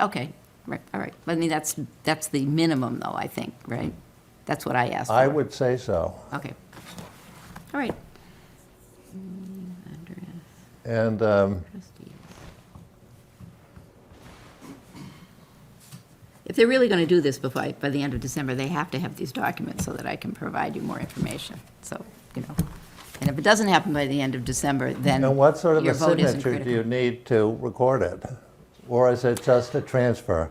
Okay, right, all right. I mean, that's, that's the minimum though, I think, right? That's what I asked for. I would say so. Okay. All right. Mm, And um, If they're really going to do this before, by the end of December, they have to have these documents so that I can provide you more information. So, you know, and if it doesn't happen by the end of December, then and what sort of your a vote isn't signature do critical. you need to record it? Or is it just a transfer?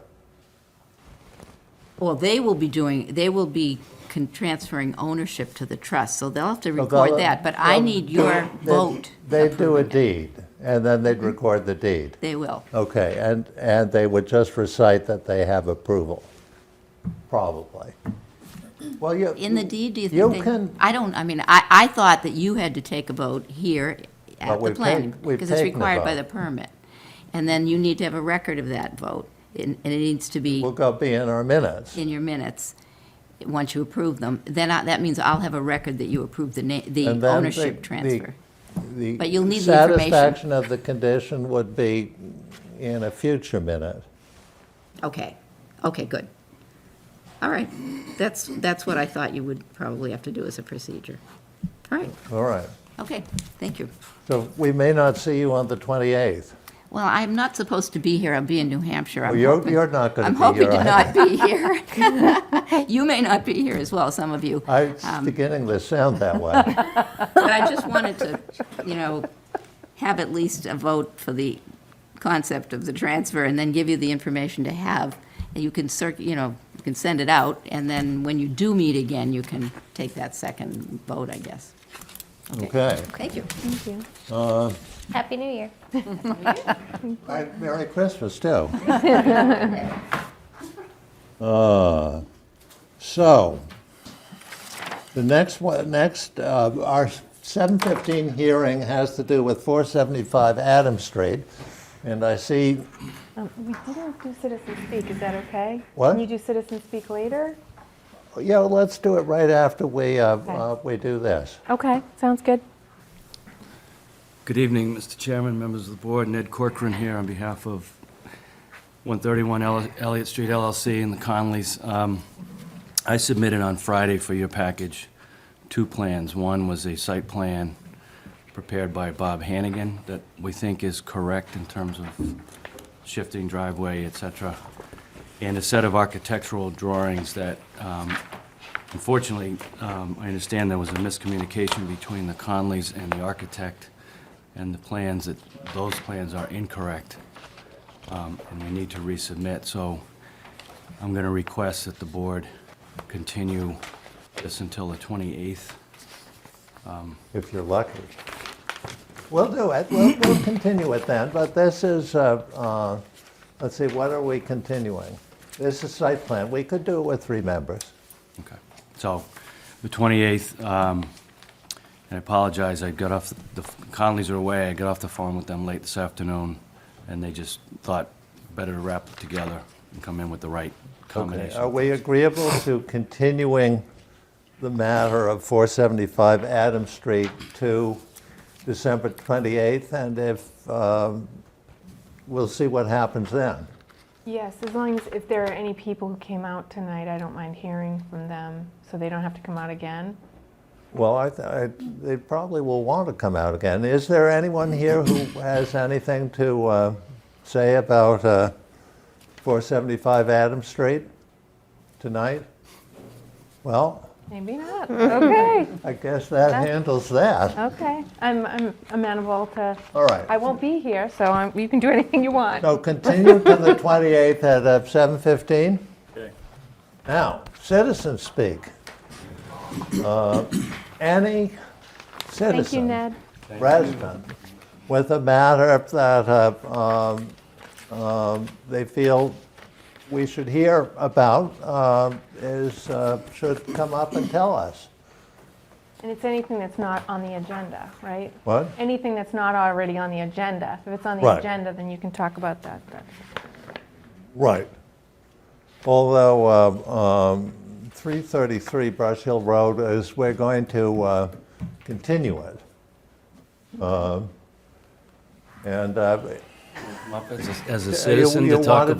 Well, they will be doing, they will be con- transferring ownership to the trust, so they'll have to they'll- record that, but I they'll- need your um, They- vote. They'd do approving a it. Mm-hmm. deed, and then they'd record the deed. They will. Okay, and, and they would just recite that they have approval, probably. Well, you. In the deed, do you You think they? can- I don't, I mean, I, I thought that you had to take a vote here But at the we've planning, take- we've because it's taken a required by the vote. permit. And then you need to have a record of that vote, and and it needs to be Will go be in our minutes. in your minutes, once you approve them. Then I- that means I'll have a record that you approved the na, the And then the- ownership the- transfer. The But you'll need the information. Satisfaction of the condition would be in a future minute. Okay, okay, good. All right, that's, that's what I thought you would probably have to do as a procedure. All right, All right. okay, thank you. So we may not see you on the 28th. Well, I'm not supposed to be here, I'll be in New Hampshire. I'm Well, you're- hoping- you're not gonna I'm be hoping to here not be here. You may not be here as well, some of you. I- Um, It's beginning to sound that way. But I just wanted to, you know, have at least a vote for the concept of the transfer and then give you the information to have. And you can circ, you know, you can send it out, and then when you do meet again, you can take that second vote, I guess. Okay. Thank you. Thank you. Happy New Year. Right, Merry Christmas, too. Uh, So, the next one, next, uh, our 7:15 hearing has to do with 475 Adams Street, and I see, We didn't do citizen speak, is that okay? What? Can you do citizen speak later? yeah, let's do it right after we, uh, Okay. uh, we do this. Okay, sounds good. Good evening, Mr. Chairman, members of the board. Ned Corcoran here on behalf of 131 Elli- Elliott Street LLC and the Conleys. Um, I submitted on Friday for your package two plans. One was a site plan prepared by Bob Hannigan that we think is correct in terms of shifting driveway, et cetera, and a set of architectural drawings that um, Unfortunately, um, I understand there was a miscommunication between the Conleys and the architect, and the plans, that those plans are incorrect, um, and we need to resubmit. So I'm going to request that the board continue this until the 28th. if you're lucky. We'll do it, we'll, we'll continue it then, but this is, uh, uh, let's see, what are we continuing? This is site plan, we could do it with three members. Okay. So, the 28th, um, and I apologize, I got off, the Conleys are away, I got off the phone with them late this afternoon, and they just thought better to wrap it together and come in with the right Okay, Uh, are combination. we agreeable to continuing the matter of 475 Adams Street to December 28th? And if, um, we'll see what happens then. Yes, as long as if there are any people who came out tonight, I don't mind hearing from them so they don't have to come out again. Well, I, th- I- they probably will want to come out again. Is there anyone here who has anything to uh, say about uh, 475 Adams Street tonight? Well, Maybe not. Okay, I guess that handles that. okay. I'm, I'm amenable to. All right. I won't be here, so I'm, you can do anything you want. So continue to the 28th at uh, 7:15. Now, citizens speak. Uh, Any citizen. Thank you, Ned. resident with a matter that uh, um, um, they feel we should hear about uh, is, uh, should come up and tell us. And it's anything that's not on the agenda, right? What? Anything that's not already on the agenda. If it's on the Right. agenda, then you can talk about that. but- Right. Although uh, um, 333 Brush Hill Road is, we're going to uh, continue it. Um, uh, And uh, As a- As a you- citizen you to talk wanted